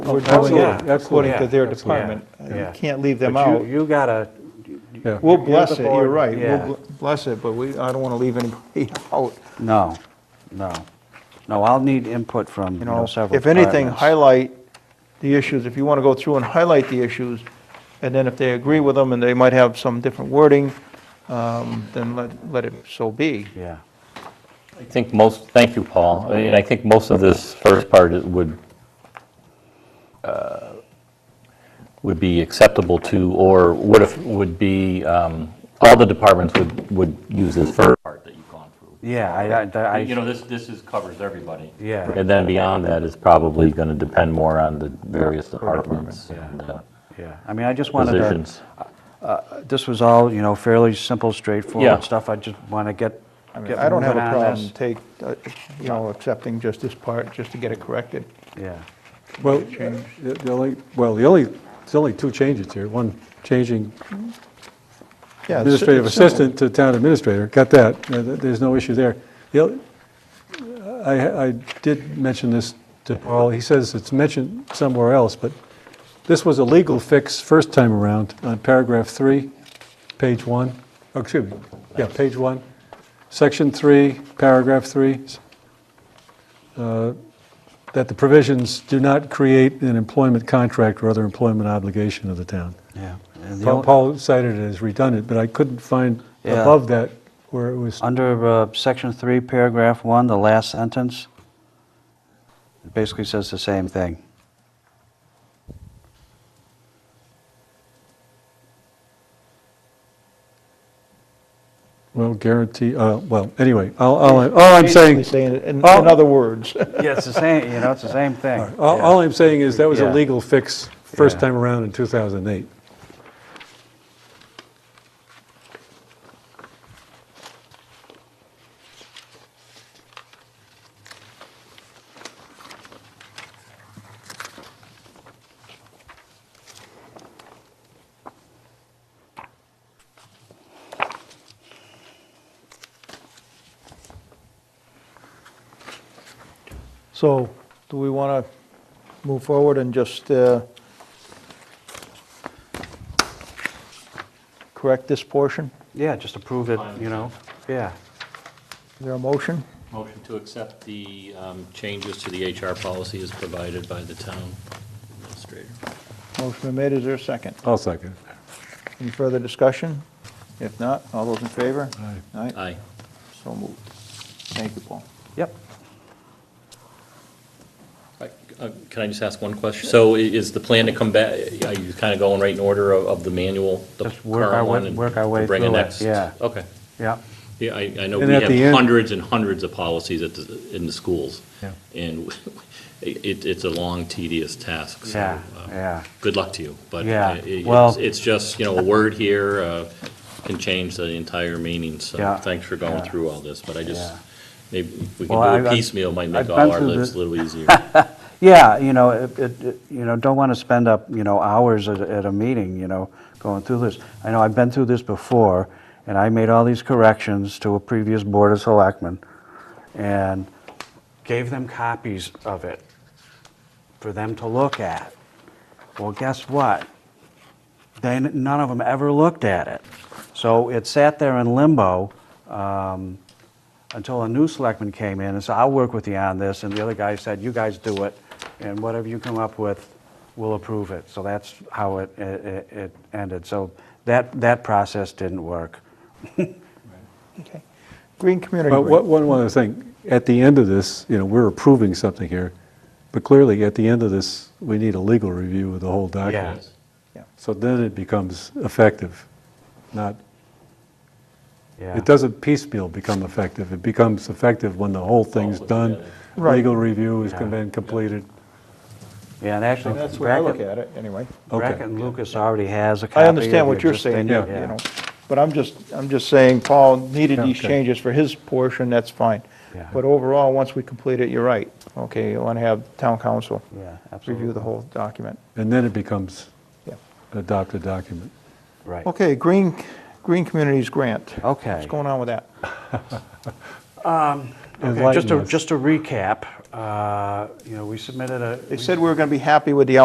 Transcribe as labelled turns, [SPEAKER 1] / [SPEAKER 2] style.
[SPEAKER 1] we're doing
[SPEAKER 2] absolutely,
[SPEAKER 1] it according to
[SPEAKER 2] absolutely,
[SPEAKER 1] their
[SPEAKER 2] yeah,
[SPEAKER 1] department.
[SPEAKER 2] absolutely,
[SPEAKER 1] You
[SPEAKER 2] yeah.
[SPEAKER 1] can't leave them
[SPEAKER 2] But you-
[SPEAKER 1] out.
[SPEAKER 2] You gotta,
[SPEAKER 1] Yeah.
[SPEAKER 2] you're
[SPEAKER 1] We'll
[SPEAKER 2] the
[SPEAKER 1] bless it, you're
[SPEAKER 2] board,
[SPEAKER 1] right,
[SPEAKER 2] yeah.
[SPEAKER 1] we'll bl- bless it, but we, I don't want to leave anybody out.
[SPEAKER 3] No, no. No, I'll need input from,
[SPEAKER 1] You
[SPEAKER 3] you
[SPEAKER 1] know,
[SPEAKER 3] know, several
[SPEAKER 1] if anything,
[SPEAKER 3] departments.
[SPEAKER 1] highlight the issues, if you want to go through and highlight the issues, and then if they agree with them, and they might have some different wording, um, then let, let it so be.
[SPEAKER 3] Yeah,
[SPEAKER 4] I think most, thank you, Paul. I mean, I think most of this first part is- would, uh, would be acceptable to, or would if, would be, um, all the departments would, would use this first part that you've gone through.
[SPEAKER 3] yeah, I- I,
[SPEAKER 4] You
[SPEAKER 3] I,
[SPEAKER 4] know, this, this is, covers everybody.
[SPEAKER 3] Yeah.
[SPEAKER 4] And then beyond that is probably going to depend more on the various departments and uh,
[SPEAKER 3] yeah. I mean, I just wanted to,
[SPEAKER 4] positions.
[SPEAKER 3] this was all, you know, fairly simple,
[SPEAKER 4] Yeah.
[SPEAKER 3] straightforward stuff. I just want to get,
[SPEAKER 1] I mean,
[SPEAKER 3] get
[SPEAKER 1] I don't have
[SPEAKER 3] moving
[SPEAKER 1] a
[SPEAKER 3] on
[SPEAKER 1] problem
[SPEAKER 3] this.
[SPEAKER 1] take, uh, you know, accepting just this part, just to get it corrected.
[SPEAKER 3] Yeah,
[SPEAKER 5] Well, the the only, well, the only, there's only two changes here. One, changing
[SPEAKER 1] Yeah, it's-
[SPEAKER 5] administrative
[SPEAKER 1] it's simple.
[SPEAKER 5] assistant to town administrator, got that, Uh, th- there's no issue there. The oth- I, I did mention this to Paul, he says it's mentioned somewhere else, but this was a legal fix first time around on paragraph three, page one, oh, excuse me, yeah, page one, section three, paragraph three, uh, that the provisions do not create an employment contract or other employment obligation of the town.
[SPEAKER 3] yeah. And the
[SPEAKER 5] Paul-
[SPEAKER 3] only-
[SPEAKER 5] Paul cited it as redundant, but I couldn't find
[SPEAKER 3] Yeah.
[SPEAKER 5] above that where it was,
[SPEAKER 3] Under uh, section three, paragraph one, the last sentence, it basically says the same thing.
[SPEAKER 5] well, guarantee, uh, well, anyway, all, all I- all I'm saying,
[SPEAKER 1] Basically saying it in, in
[SPEAKER 5] Oh.
[SPEAKER 1] other words.
[SPEAKER 3] Yeah, it's the same, you know, it's the same thing.
[SPEAKER 5] all
[SPEAKER 1] Oh,
[SPEAKER 5] all I'm saying is that was a
[SPEAKER 3] Yeah.
[SPEAKER 5] legal fix first
[SPEAKER 3] Yeah.
[SPEAKER 5] time around in 2008.
[SPEAKER 1] So, do we want to move forward and just uh, correct this portion?
[SPEAKER 3] Yeah, just approve it, you know, yeah.
[SPEAKER 1] Is there a motion?
[SPEAKER 6] Motion to accept the um, changes to the HR policy as provided by the town administrator.
[SPEAKER 1] Motion been made, is there a second?
[SPEAKER 5] I'll second.
[SPEAKER 1] Any further discussion? If not, all those in favor?
[SPEAKER 5] Aye.
[SPEAKER 1] Aye,
[SPEAKER 6] Aye.
[SPEAKER 1] so moved. Thank you, Paul.
[SPEAKER 3] Yep.
[SPEAKER 6] Uh, Can I just ask one question? So i- is the plan to come back, are you kind of going right in order of- of the manual? the
[SPEAKER 3] Just work our
[SPEAKER 6] current
[SPEAKER 3] way-
[SPEAKER 6] one, and
[SPEAKER 3] work our way
[SPEAKER 6] bring the
[SPEAKER 3] through it,
[SPEAKER 6] next?
[SPEAKER 3] yeah.
[SPEAKER 6] Okay.
[SPEAKER 3] Yep.
[SPEAKER 6] Yeah, I, I know
[SPEAKER 5] And
[SPEAKER 6] we
[SPEAKER 5] at
[SPEAKER 6] have
[SPEAKER 5] the end-
[SPEAKER 6] hundreds and hundreds of policies at, the- in the schools.
[SPEAKER 5] Yeah.
[SPEAKER 6] And it, it's a long tedious task, so.
[SPEAKER 3] Yeah,
[SPEAKER 6] uh,
[SPEAKER 3] yeah.
[SPEAKER 6] Good luck to you, but.
[SPEAKER 3] Yeah,
[SPEAKER 6] i- i- it's-
[SPEAKER 3] well-
[SPEAKER 6] It's just, you know, a word here uh, can change the entire meaning, so
[SPEAKER 3] Yeah,
[SPEAKER 6] thanks for
[SPEAKER 3] yeah.
[SPEAKER 6] going through all this, but I just,
[SPEAKER 3] Yeah.
[SPEAKER 6] maybe if we
[SPEAKER 3] Well,
[SPEAKER 6] can do
[SPEAKER 3] I-
[SPEAKER 6] a
[SPEAKER 3] I-
[SPEAKER 6] piecemeal, it might
[SPEAKER 3] I've
[SPEAKER 6] make all
[SPEAKER 3] been
[SPEAKER 6] our
[SPEAKER 3] through the-
[SPEAKER 6] lives a little easier.
[SPEAKER 3] Yeah, you know, it, it, it- you know, don't want to spend up, you know, hours at, at a meeting, you know, going through this. I know I've been through this before, and I made all these corrections to a previous board of selectmen, and gave them copies of it for them to look at. Well, guess what? They, none of them ever looked at it. So it sat there in limbo um, until a new selectman came in and said, I'll work with you on this. And the other guy said, you guys do it, and whatever you come up with, we'll approve it. So that's how it, it it ended. So that, that process didn't work.
[SPEAKER 1] Okay. Green Community
[SPEAKER 5] But what-
[SPEAKER 1] Group.
[SPEAKER 5] one, one other thing, at the end of this, you know, we're approving something here, but clearly, at the end of this, we need a legal review of the whole document.
[SPEAKER 1] Yeah.
[SPEAKER 5] So then it becomes effective, not
[SPEAKER 3] Yeah.
[SPEAKER 5] It doesn't piecemeal become effective. It becomes effective when the whole thing's
[SPEAKER 6] put
[SPEAKER 5] done.
[SPEAKER 6] together.
[SPEAKER 1] Right.
[SPEAKER 5] Legal review has
[SPEAKER 3] Yeah.
[SPEAKER 5] been completed.
[SPEAKER 3] Yeah, and actually,
[SPEAKER 1] That's the way I look
[SPEAKER 3] Brackett
[SPEAKER 1] at it, anyway.
[SPEAKER 3] Brackett and Lucas already has a copy.
[SPEAKER 1] I
[SPEAKER 3] of
[SPEAKER 1] understand
[SPEAKER 3] the
[SPEAKER 1] what you're
[SPEAKER 3] existing-
[SPEAKER 1] saying, you
[SPEAKER 5] Yeah.
[SPEAKER 1] know, but I'm just, I'm just saying Paul needed these
[SPEAKER 5] Okay.
[SPEAKER 1] changes for his portion, that's fine.
[SPEAKER 3] Yeah.
[SPEAKER 1] But overall, once we complete it, you're right. Okay, you want to have town council
[SPEAKER 3] Yeah, absolutely.
[SPEAKER 1] review the whole document.
[SPEAKER 5] And then it becomes
[SPEAKER 1] Yeah.
[SPEAKER 5] an adopted document.
[SPEAKER 3] Right.
[SPEAKER 1] Okay, Green, Green Communities Grant.
[SPEAKER 3] Okay.
[SPEAKER 1] What's going on with that?
[SPEAKER 3] Okay, just
[SPEAKER 5] Enlighten
[SPEAKER 3] to,
[SPEAKER 5] us.
[SPEAKER 3] just to recap, uh, you know, we submitted a.
[SPEAKER 1] They
[SPEAKER 3] we
[SPEAKER 1] said we were going to be happy with the